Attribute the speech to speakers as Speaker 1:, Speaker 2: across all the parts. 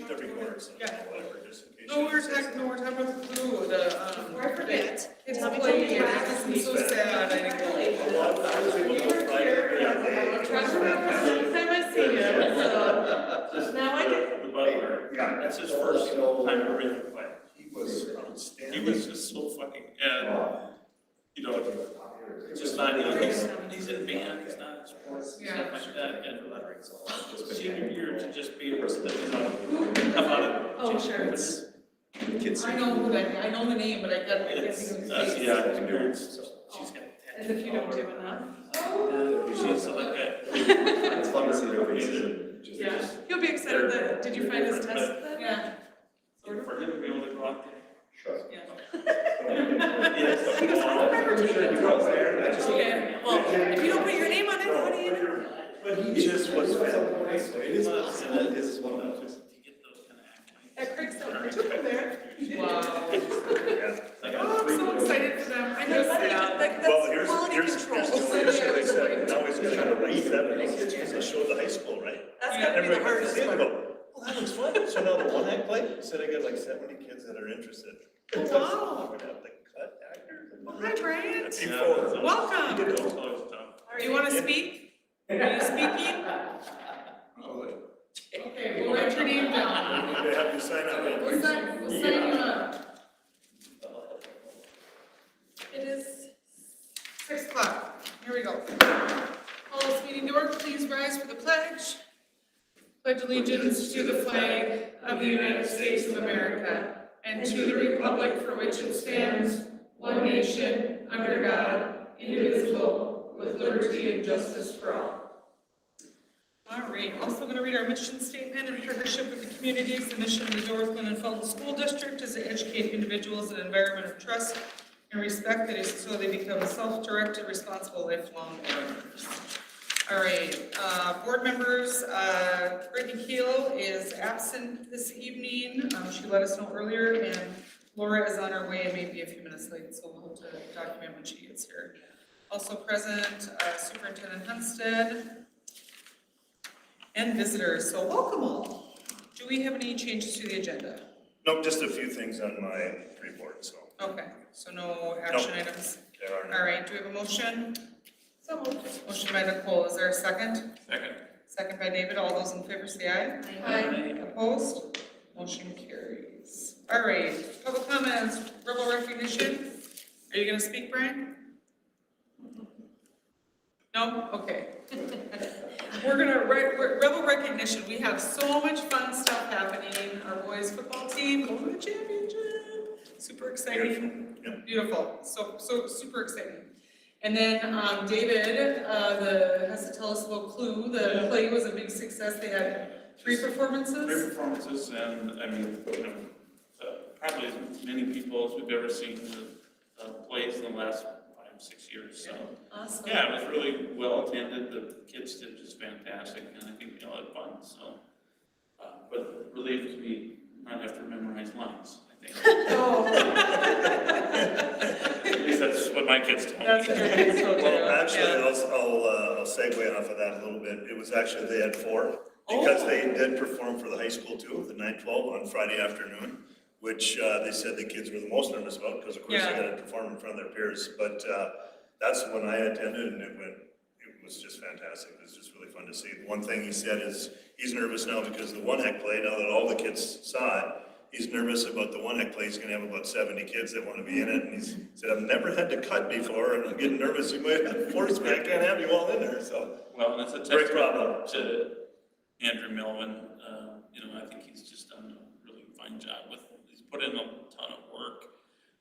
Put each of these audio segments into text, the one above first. Speaker 1: person, yeah.
Speaker 2: whatever, just in case.
Speaker 1: No, we were talking, no, we we're talking about the flu, the, um.
Speaker 3: Or I forget.
Speaker 1: It's
Speaker 3: Tell me
Speaker 1: like,
Speaker 3: to do
Speaker 1: yeah,
Speaker 3: it.
Speaker 1: this is so sad, I didn't go.
Speaker 2: A lot of times they
Speaker 3: You were
Speaker 2: look like-
Speaker 3: here,
Speaker 2: yeah,
Speaker 3: I'm trying to remember the time I see you, so now I can.
Speaker 2: The butler,
Speaker 4: Yeah. uh,
Speaker 2: that's his first time ever in the play.
Speaker 4: He was
Speaker 2: He
Speaker 4: outstanding.
Speaker 2: was just so funny, and, you know, just not, you know, he's, he's in band, he's not in sports, and stuff like that, and senior year to just be a person that is on, come out of.
Speaker 3: Oh, sure, it's-
Speaker 4: Kids.
Speaker 1: I know who that, I know the name, but I got, I can't
Speaker 2: It's,
Speaker 1: think of
Speaker 2: uh,
Speaker 1: his face.
Speaker 2: yeah, it's weird, so she's got.
Speaker 3: As if you don't do enough.
Speaker 2: She's like a.
Speaker 4: It's fun to see their faces.
Speaker 3: Yeah, he'll be excited that, did you find his test then?
Speaker 1: Yeah.
Speaker 2: For him to be able to go out there.
Speaker 4: Sure.
Speaker 1: Yeah.
Speaker 2: Yes.
Speaker 3: He goes, I don't remember
Speaker 4: Pretty sure
Speaker 3: taking
Speaker 4: he
Speaker 3: it.
Speaker 4: was there, I just-
Speaker 3: Okay, well, if you don't put your name on it, how do you know?
Speaker 2: But
Speaker 4: He just was. It is
Speaker 2: possible.
Speaker 4: It is one of those.
Speaker 2: To get those kind of
Speaker 3: That Craig's not particular there.
Speaker 1: Wow.
Speaker 2: Like,
Speaker 3: Oh, I'm so excited for them. I know, that- that-
Speaker 5: Well,
Speaker 3: that's
Speaker 5: here's,
Speaker 3: quality
Speaker 5: here's,
Speaker 3: control.
Speaker 5: here's the way they said, now he's gonna try to raise that, and kids just to show the high school, right?
Speaker 3: That's gotta be the
Speaker 5: Everybody comes
Speaker 3: hardest
Speaker 5: in and
Speaker 3: part.
Speaker 5: go, well, that looks fun, so now the one act play, he said I got like seventy kids that are interested.
Speaker 3: Wow.
Speaker 5: We're gonna have to cut actors. and-
Speaker 3: Well, Hi, Bryant.
Speaker 5: Before.
Speaker 3: Welcome.
Speaker 5: You
Speaker 2: It's
Speaker 5: know,
Speaker 2: always tough.
Speaker 3: Do you wanna speak? Are you speaking?
Speaker 1: Okay, we'll write your name down.
Speaker 5: They have you sign up.
Speaker 1: We'll sign, we'll sign you up.
Speaker 3: It is
Speaker 1: Six o'clock, here we go. Call this meeting to order, please rise for the pledge. Pledge allegiance to the flag of the United States of America and to the republic for which it stands, one nation, under God, indivisible, with liberty and justice for all. All right, also going to read our mission statement in partnership with the communities. The mission of the Northland and Felton School District is to educate individuals in an environment of trust and respect that is so they become self-directed, responsible, lifelong learners. All right, uh, board members, uh, Brittany Keel is absent this evening. Um, She let us know earlier, and Laura is on her way, maybe a few minutes late, so we'll have to document when she gets here. Also present, uh, Superintendent Hunstead, and visitors, so welcome all. Do we have any changes to the agenda?
Speaker 5: Nope, just a few things on my report, so
Speaker 1: Okay, so no action items.
Speaker 5: there are no.
Speaker 1: All right, do we have a motion? So moved. Motion by Nicole, is there a second?
Speaker 2: Second.
Speaker 1: Second by David, all those in favor say aye. Opposed? Motion carries. All right, public comments, verbal recognition. Are you gonna speak, Brian? No? Okay. We're gonna, re- re- rebel recognition, we have so much fun stuff happening, our boys football team going to the championship, super exciting.
Speaker 5: Beautiful,
Speaker 1: Beautiful, so, so, super exciting. And then, um, David, uh, the, has to tell us a little clue, the play was a big success, they had three
Speaker 2: Great
Speaker 1: performances.
Speaker 2: performances, and I mean, you know, uh, probably as many people as we've ever seen uh, uh, plays in the last five, six years, so.
Speaker 1: Awesome.
Speaker 2: Yeah, it was really well attended, the kids did just fantastic, and I think we all had fun, so. uh, But relieved to be, not have to memorize lines, I think.
Speaker 3: Oh,
Speaker 2: At least that's what my kids told me.
Speaker 1: That's great, so good.
Speaker 5: Well, actually,
Speaker 1: Yeah.
Speaker 5: I'll, I'll, uh, I'll segue off of that a little bit. It was actually, they had four,
Speaker 1: Oh.
Speaker 5: because they did perform for the high school too, the nine twelve on Friday afternoon, which, uh, they said the kids were the most nervous about, because of course they
Speaker 1: Yeah.
Speaker 5: gotta perform in front of their peers. But, uh, that's when I attended and it went, it was just fantastic. It was just really fun to see. One thing he said is, he's nervous now because the one act play, now that all the kids saw it, he's nervous about the one act play. He's gonna have about seventy kids that wanna be in it. And he's said, I've never had to cut before and I'm getting nervous. You might have forced me. I can't have you all in there, so.
Speaker 2: Well, and it's a
Speaker 5: Great
Speaker 2: testament
Speaker 5: problem.
Speaker 2: to Andrew Melvin, uh, you know, I think he's just done a really fine job with, he's put in a ton of work,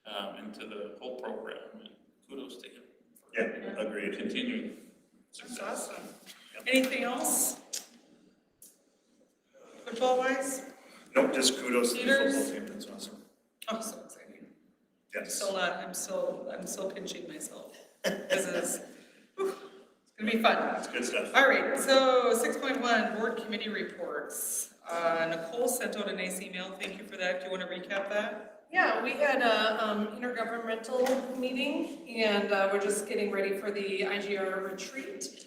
Speaker 2: um, into the whole program, and kudos to him.
Speaker 5: Yeah,
Speaker 2: for
Speaker 5: agreed.
Speaker 2: Continuing
Speaker 1: That's
Speaker 2: success.
Speaker 1: awesome. Anything else? Football wise?
Speaker 5: Nope, just kudos to the
Speaker 1: Leaders.
Speaker 5: football team. That's awesome.
Speaker 1: I'm Oh, so excited. I'm
Speaker 5: Yes.
Speaker 1: still not, I'm still, I'm still pinching myself. This is, whew, it's gonna be fun.
Speaker 5: Good stuff.
Speaker 1: All right, so six point one, board committee reports. Uh, Nicole sent out a nice email. Thank you for that. Do you want to recap that?
Speaker 3: yeah, we had a, um, intergovernmental meeting and, uh, we're just getting ready for the IGR retreat.